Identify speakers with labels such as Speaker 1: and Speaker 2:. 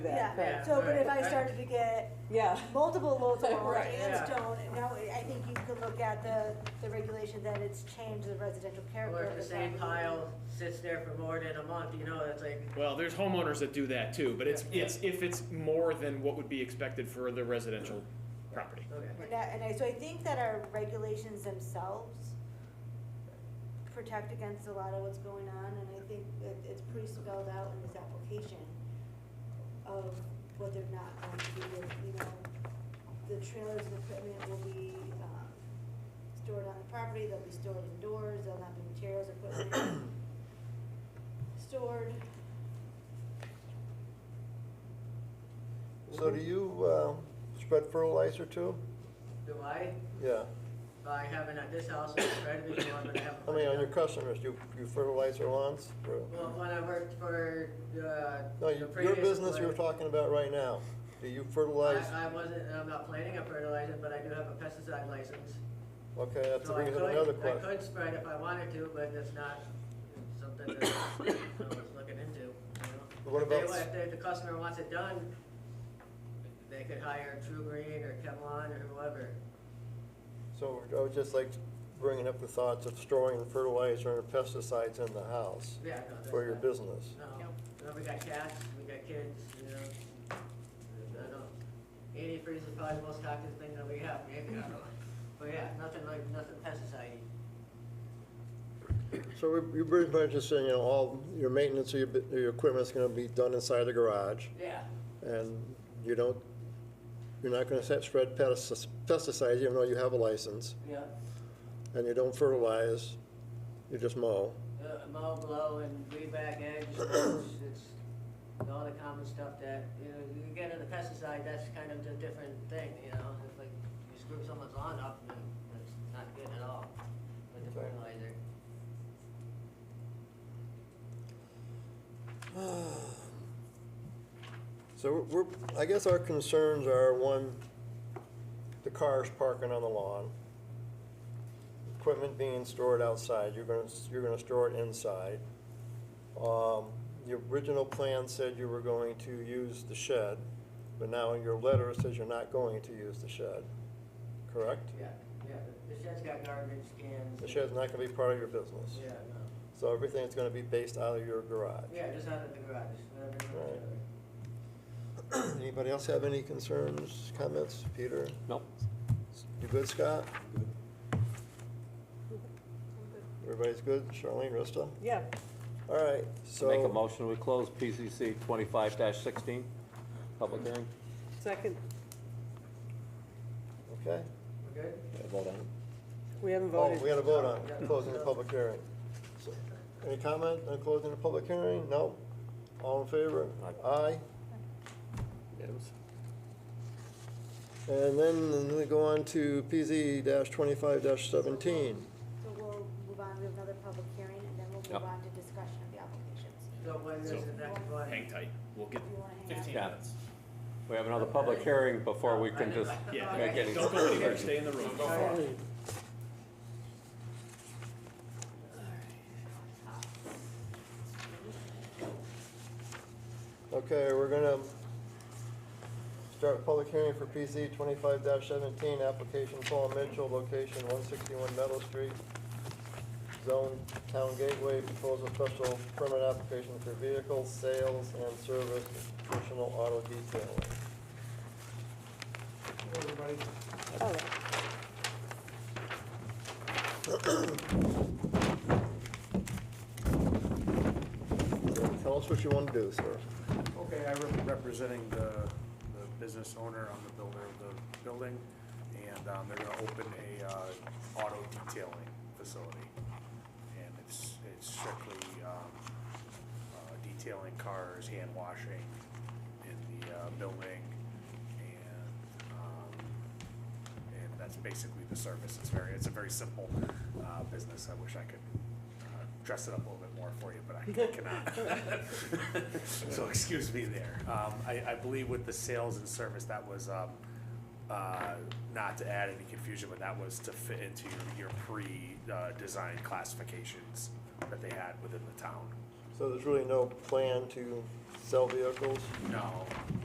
Speaker 1: that.
Speaker 2: Yeah,
Speaker 1: So, but if I
Speaker 2: right.
Speaker 1: started to get
Speaker 3: Yeah.
Speaker 1: multiple loads of orange
Speaker 3: Right,
Speaker 1: and
Speaker 2: yeah.
Speaker 1: stone, now I think you could look at the, the regulation that it's changed the residential character
Speaker 2: Or
Speaker 1: of
Speaker 2: if
Speaker 1: the
Speaker 2: the same
Speaker 1: property.
Speaker 2: pile sits there for more than a month, you know, it's like,
Speaker 4: Well, there's homeowners that do that too, but it's, it's, if it's more than what would be expected for the residential property.
Speaker 2: okay.
Speaker 1: And I, and I, so I think that our regulations themselves protect against a lot of what's going on, and I think it, it's pretty spelled out in this application of what they're not going to do, with, you know, the trailers and equipment will be, um, stored on the property, they'll be stored indoors, there'll not be materials, equipment stored.
Speaker 5: So do you um, spread fertilizer too?
Speaker 2: Do I,
Speaker 5: Yeah.
Speaker 2: I haven't at this house, I've spread it before, but I haven't.
Speaker 5: I mean, on your customers, you, you fertilize their lawns? or-
Speaker 2: Well, when I worked for, uh,
Speaker 5: No,
Speaker 2: the
Speaker 5: you- your
Speaker 2: previous
Speaker 5: business you're
Speaker 2: employer,
Speaker 5: talking about right now, do you fertilize?
Speaker 2: I, I wasn't, and I'm not planning on fertilizing, but I do have a pesticide license.
Speaker 5: Okay, that
Speaker 2: So I
Speaker 5: brings up
Speaker 2: could-
Speaker 5: another
Speaker 2: I
Speaker 5: question.
Speaker 2: could spread if I wanted to, but it's not something that I was looking into, you know?
Speaker 5: But what
Speaker 2: If they
Speaker 5: about
Speaker 2: wa-
Speaker 5: s-
Speaker 2: If they- the customer wants it done, they could hire True Green or Kevlon or whoever.
Speaker 5: So I was just like bringing up the thoughts of storing fertilizer and pesticides in the house
Speaker 2: Yeah, no, that's
Speaker 5: for your
Speaker 2: not-
Speaker 5: business.
Speaker 2: No, no, we got cats, we got kids, you know? uh, I don't know. Antifreeze is probably the most toxic thing that we have, maybe, I don't know. But yeah, nothing like, nothing pesticide.
Speaker 5: So we- you're pretty much just saying, you know, all your maintenance of your, bu- your equipment's gonna be done inside the garage?
Speaker 2: Yeah,
Speaker 5: And you don't, you're not gonna set- spread pestis- pesticides even though you have a license,
Speaker 2: yeah.
Speaker 5: and you don't fertilize, you just mow.
Speaker 2: Uh, mow, blow, and weed back edge, it's, it's all the common stuff that, you know, you get into pesticide, that's kind of a different thing, you know? It's like, you screw someone's lawn up, then that's not good at all with the
Speaker 5: Okay.
Speaker 2: fertilizer.
Speaker 5: So we're- we're, I guess our concerns are, one, the cars parking on the lawn, equipment being stored outside, you're gonna, you're gonna store it inside. Um, The original plan said you were going to use the shed, but now your letter says you're not going to use the shed, correct?
Speaker 2: Yeah, yeah, the the shed's got garbage cans.
Speaker 5: The shed's not gonna be part of your business.
Speaker 2: Yeah, no,
Speaker 5: So everything's gonna be based out of your garage.
Speaker 2: yeah, just out of the garage, whatever. you want to do.
Speaker 5: Anybody else have any concerns, comments? Peter?
Speaker 6: No.
Speaker 5: You good, Scott? Everybody's good? Charlene, Rista?
Speaker 3: Yeah.
Speaker 5: All right, so.
Speaker 6: Make a motion, we close PCC twenty-five sixteen, public hearing.
Speaker 3: Second,
Speaker 5: Okay.
Speaker 2: We're good?
Speaker 6: Vote on it.
Speaker 3: we haven't
Speaker 5: Oh, we
Speaker 3: voted.
Speaker 5: got to vote on closing the public hearing. So, Any comment on closing the public hearing? No? All in favor?
Speaker 6: Aye.
Speaker 5: Aye. And then we go on to PZ twenty-five seventeen.
Speaker 1: So we'll move on, we have another public hearing, and then we'll
Speaker 6: Yep.
Speaker 1: move on to discussion of the applications.
Speaker 2: So when is
Speaker 4: So-
Speaker 2: the next one?
Speaker 4: Hang tight, we'll get
Speaker 1: You wanna hang out?
Speaker 4: fifteen
Speaker 6: Yeah.
Speaker 4: minutes.
Speaker 6: We have another public hearing before we can just
Speaker 4: Yeah,
Speaker 6: make any.
Speaker 4: don't go anywhere, stay in the room.
Speaker 5: Okay, we're gonna start a public hearing for PC twenty-five seventeen, application Paul Mitchell, location one sixty-one Meadow Street, zone town gateway, proposal special permit application for vehicle sales and service, traditional auto detailing.
Speaker 3: Oh,
Speaker 5: So Tell us what you wanna do, sir.
Speaker 7: Okay, I'm representing the, the business owner, I'm the builder of the building, and, um, they're gonna open a, uh, auto detailing facility. And it's, it's strictly, um, uh, detailing cars, hand washing in the, uh, building, and, um, and that's basically the service. It's very, it's a very simple, uh, business. I wish I could, uh, dress it up a little bit more for you, but I cannot. So excuse me there. Um, I, I believe with the sales and service, that was, um, uh, not to add any confusion, but that was to fit into your, your pre, uh, design classifications that they had within the town.
Speaker 5: So there's really no plan to sell vehicles?
Speaker 7: No.